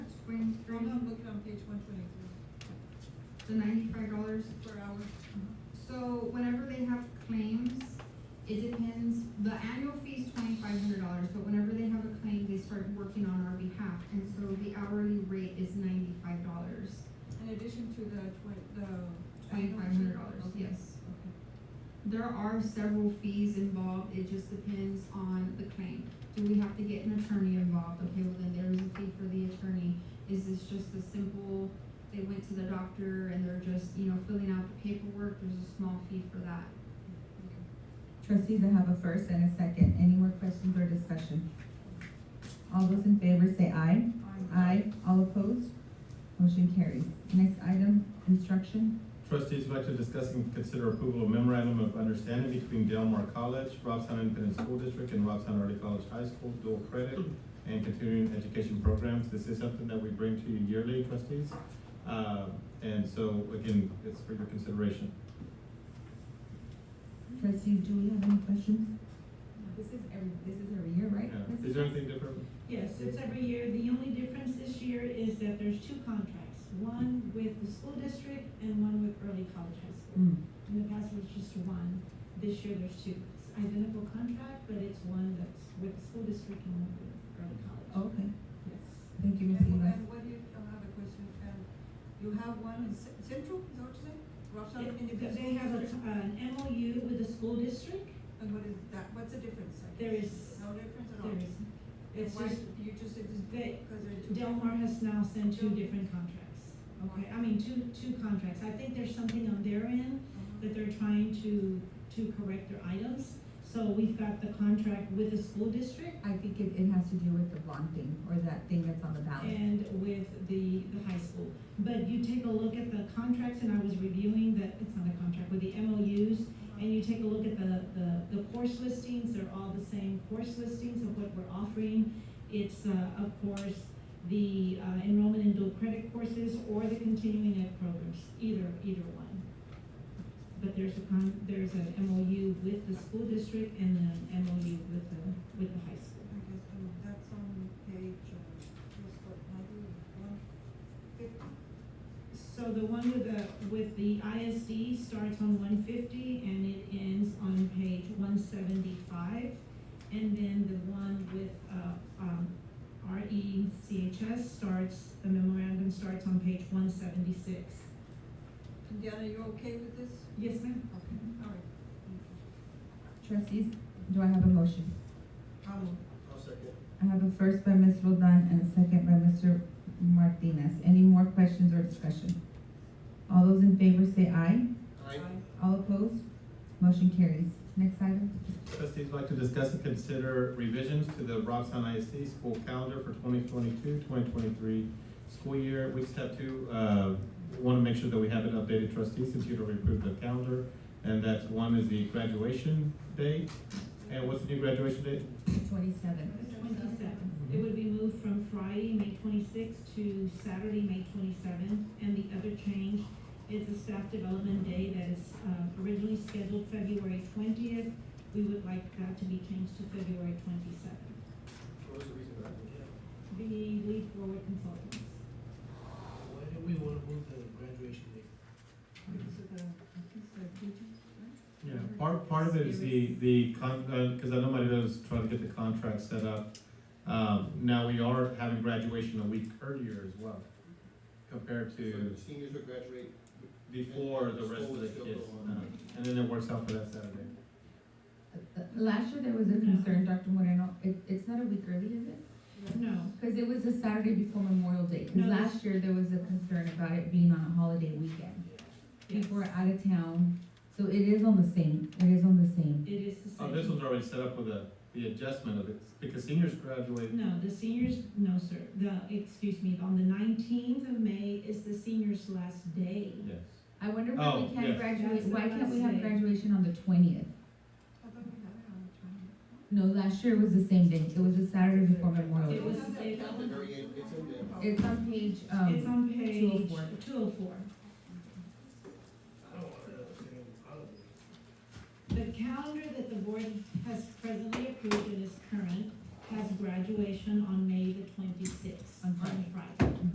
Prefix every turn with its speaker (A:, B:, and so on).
A: Graham
B: Oh,
A: Graham,
B: no, look on page one twenty-three,
A: the ninety-five dollars.
B: per hour.
C: Mm-hmm.
A: So whenever they have claims, it depends, the annual fee is twenty-five hundred dollars, but whenever they have a claim, they start working on our behalf. And so the hourly rate is ninety-five dollars,
B: In addition to the twen- the.
A: twenty-five hundred dollars,
B: Okay,
A: yes.
B: Okay.
A: There are several fees involved, it just depends on the claim. Do we have to get an attorney involved? Okay, well then there is a fee for the attorney. Is this just a simple, they went to the doctor and they're just, you know, filling out the paperwork, there's a small fee for that.
D: Trustees, I have a first and a second. Any more questions or discussion? All those in favor say aye. Aye. All opposed? Motion carries. Next item, instruction.
E: Trustees would like to discuss and consider approval of memorandum of understanding between Delmar College, Robstown Independent School District, and Robstown Early College High School dual credit and continuing education programs. This is something that we bring to you yearly, trustees. Uh, and so, again, it's for your consideration.
D: Trustees, do we have any questions? This is every, this is every year, right?
E: Yeah. Uh, Is there anything different?
C: Yes, it's every year. The only difference this year is that there's two contracts, one with the school district and one with early college high school.
D: Mm.
C: In the past, it was just one. This year, there's two. It's identical contract, but it's one that's with the school district and one with early college.
D: Okay,
C: Yes.
D: thank you, Ms.
B: And,
D: Eva.
B: and what do you, I have a question, and you have one in Cen- Central, is that what you said? Robstown Independent
C: They have
B: School
C: a-
B: District,
C: an MOU with the school district.
B: and what is that, what's the difference? I
C: There
B: guess?
C: is-
B: No difference at all?
C: There is, it's
B: Why,
C: just
B: you just said this,
C: they-
B: because they're two.
C: Delmar has now sent two different contracts. Okay, I mean, two, two contracts. I think there's something on their end
B: Uh-huh.
C: that they're trying to, to correct their items. So we've got the contract with the school district
D: I think it, it has to do with the blonde thing, or that thing that's on the ballot.
C: and with the, the high school. But you take a look at the contracts, and I was reviewing that, it's not a contract, with the MOUs,
B: Uh-huh.
C: and you take a look at the, the, the course listings, they're all the same course listings of what we're offering. It's, uh, of course, the uh, enrollment in dual credit courses or the continuing ed programs, either, either one. But there's a con, there's an MOU with the school district and an MOU with the, with the high school.
B: I guess, um, that's on page, uh, just what, ninety-one fifty?
C: So the one with the, with the ISD starts on one fifty and it ends on page one seventy-five. And then the one with, uh, um, E RECHS starts, the memorandum starts on page one seventy-six.
B: And Deanna, you okay with this?
C: Yes, ma'am?
B: Okay, all right. Thank you.
D: Trustees, do I have a motion?
B: I'll move.
D: I have a first by Ms. Roldan and a second by Mr. Martinez. Any more questions or discussion? All those in favor say aye. All opposed? Motion carries. Next item.
E: Trustees would like to discuss and consider revisions to the Robstown ISD school calendar for 2022-2023 school year. We just have to, uh, want to make sure that we have it updated, trustees, since you'd already approved the calendar. And that's one is the graduation date. And what's the new graduation date?
D: Twenty-seven.
C: Twenty-seven. It would be moved from Friday, May twenty-sixth to Saturday, May twenty-seventh. And the other change is the staff development day that is uh, originally scheduled February twentieth. We would like that to be changed to February twenty-seventh.
F: What was the reason behind it?
C: The lead forward consultants.
F: Why did we want to move the graduation date?
B: Because of the, I think it's the teachers, right?
E: Yeah, part, part of it is the, the con, uh 'cause cause I know Marita was trying to get the contract set up. Um, now we are having graduation a week earlier as well, compared to
F: Seniors will graduate.
E: before the rest of the kids. Uh, And then it works out for that Saturday.
D: Uh, Last year, there was a concern, Dr. Moreno, it, it's not a week early, is it?
C: No,
D: Because it was the Saturday before Memorial Day,
C: No,
D: because last year, there was a concern about it being on a holiday weekend.
C: yes,
D: People were out of town, so it is on the same, it is on the same.
C: it is the same.
E: Oh, this one's already set up with a, the adjustment of it, because seniors graduate,
C: No, the seniors, no, sir. The, excuse me, on the nineteenth of May is the seniors' last day.
E: yes.
D: I wonder why
E: Oh,
D: we
E: yes.
D: can't graduate,
C: That's the
D: why can't we
C: last
D: have
C: day.
D: graduation on the twentieth?
B: I thought we had it on the twenty.
D: No, last year was the same day, it was the Saturday before Memorial.
C: It
D: Day.
C: was-
B: Don't have that
C: it-
F: the
B: calendar.
F: very end, it's in there.
B: Okay.
D: It's on page,
C: It's
D: um,
C: on page
D: 204.
C: two oh four.
F: I don't want to understand holiday.
C: The calendar that the board has presently approved and is current has graduation on May the twenty-sixth,
D: On
C: on
D: Friday.
C: Friday.